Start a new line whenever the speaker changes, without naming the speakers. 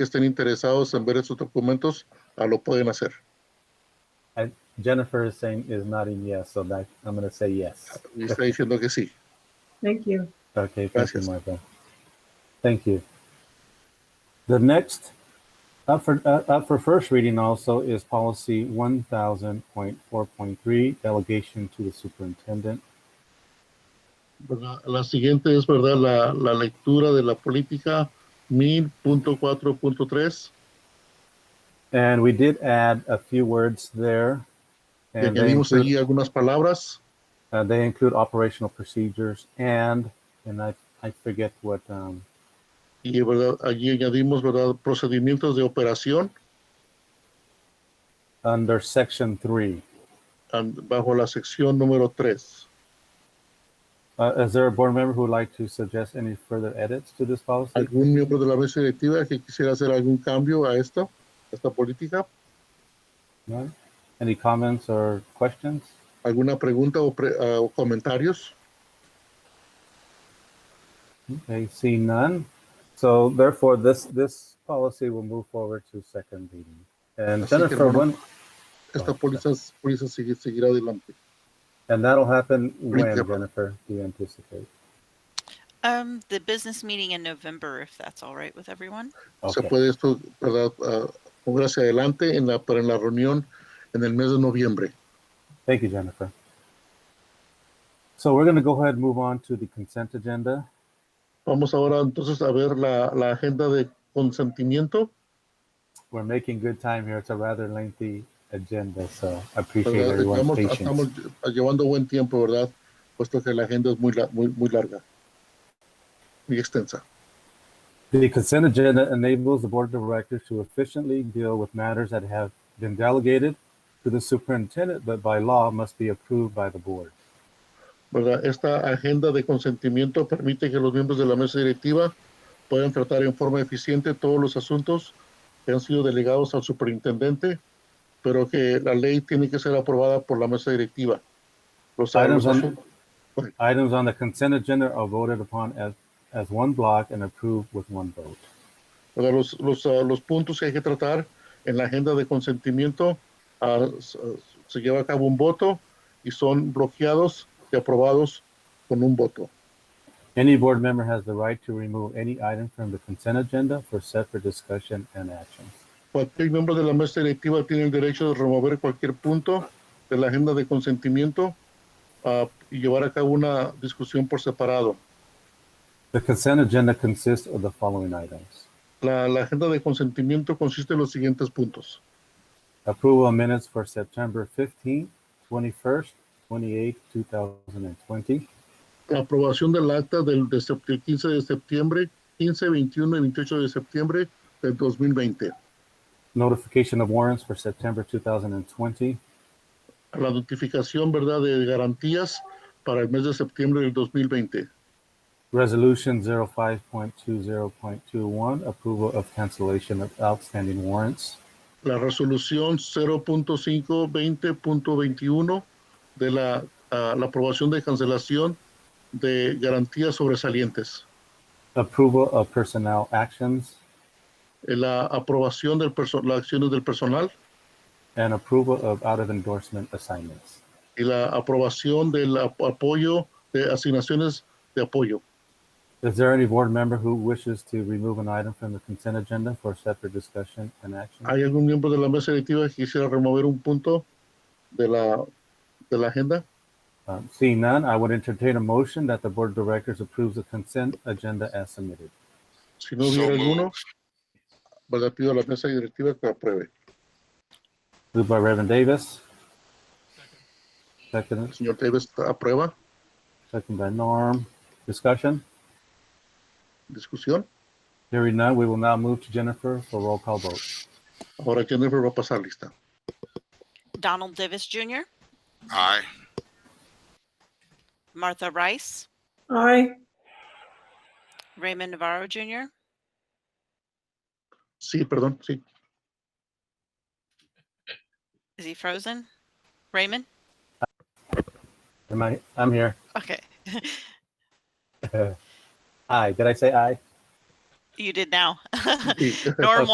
que estén interesados en ver esos documentos ah, lo pueden hacer.
I, Jennifer is saying is nodding yes, so that I'm going to say yes.
Y está diciendo que sí.
Thank you.
Okay, thank
Gracias.
you, Michael. Thank you. The next up for uh, up for first reading also is policy one thousand point four point three delegation to the superintendent.
¿verdad? Pues La siguiente es, ¿verdad? La, la lectura de la política 1000.4.3.
And we did add a few words there,
Y
and they
añadimos allí
include,
algunas palabras.
uh, they include operational procedures and and I I forget what um,
Y, ¿verdad? Allí añadimos, ¿verdad? Procedimientos de operación
under section three.
an- bajo la sección número 3.
Uh, is there a board member who would like to suggest any further edits to this policy?
¿Algún miembro de la mesa directiva que quisiera hacer algún cambio a esta, a esta política?
No? Any comments or questions?
¿Alguna pregunta o, pre- ah, o comentarios?
Okay, see none. So therefore, this, this policy will move forward to second reading. And
Así que,
Jennifer,
hermano.
when,
Esta póliza, póliza sigue- seguirá adelante.
and that'll happen when,
Recap.
Jennifer, do you anticipate?
Um, the business meeting in November, if that's all right with everyone.
Se
Okay,
puede esto, ¿verdad? Ah, mover hacia adelante en la, para en la reunión en el mes de noviembre.
thank you, Jennifer. So we're gonna go ahead and move on to the consent agenda.
Vamos ahora entonces a ver la, la agenda de consentimiento.
We're making good time here. It's a rather lengthy agenda, so I appreciate
¿verdad?
everyone's
Estamos, estamos
patience.
llevando buen tiempo, ¿verdad? Puesto que la agenda es muy, la- muy, muy larga y extensa.
The consent agenda enables the board of directors to efficiently deal with matters that have been delegated to the superintendent, but by law must be approved by the board.
¿verdad? Esta agenda de consentimiento permite que los miembros de la mesa directiva puedan tratar en forma eficiente todos los asuntos que han sido delegados al superintendente, pero que la ley tiene que ser aprobada por la mesa directiva. Los
Items
los
on,
asun-
items on the consent agenda are voted upon as, as one block and approved with one vote.
¿verdad? Los, los, ah, los puntos que hay que tratar en la agenda de consentimiento ah, s- ah, se lleva a cabo un voto y son bloqueados y aprobados con un voto.
Any board member has the right to remove any item from the consent agenda for separate discussion and action.
Cualquier miembro de la mesa directiva tiene el derecho de remover cualquier punto de la agenda de consentimiento ah, y llevar a cabo una discusión por separado.
The consent agenda consists of the following items.
La, la agenda de consentimiento consiste en los siguientes puntos.
Approval of minutes for September 15th, 21st, 28th, 2020.
La aprobación del acta del de sep- del 15 de septiembre, 15, 21 y 28 de septiembre del 2020.
Notification of warrants for September 2020.
La notificación ¿verdad? de garantías para el mes de septiembre del 2020.
Resolution 05.20.21, approval of cancellation of outstanding warrants.
la resolución 0.520.21 de la, ah, la aprobación de cancelación de garantías sobresalientes,
Approval of personnel actions
eh, la aprobación de las acciones del personal
and approval of out of endorsement assignments.
y la aprobación del ap- apoyo de asignaciones de apoyo.
Is there any board member who wishes to remove an item from the consent agenda for separate discussion and action?
¿Hay algún miembro de la mesa directiva que quisiera remover un punto de la, de la agenda?
Um, Seeing none, I would entertain a motion that the Board of Directors approves the consent agenda as submitted.
Si no
So
hubiera
moved.
alguno, ¿verdad? pido a la mesa directiva que apruebe.
Moved by Reverend Davis. Second,
Señor Davis, ¿aprueba?
second by Norm. Discussion?
¿Discusión?
Hearing none, we will now move to Jennifer for roll call vote.
Ahora Jennifer va a pasar lista.
Donald Davis Jr.,
Aye.
Martha Rice,
Aye.
Raymond Navarro Jr.,
Sí, perdón, sí.
is he frozen? Raymond?
Am I, I'm here.
Okay,
Aye, did I say aye?
you did now.
sí.
Norm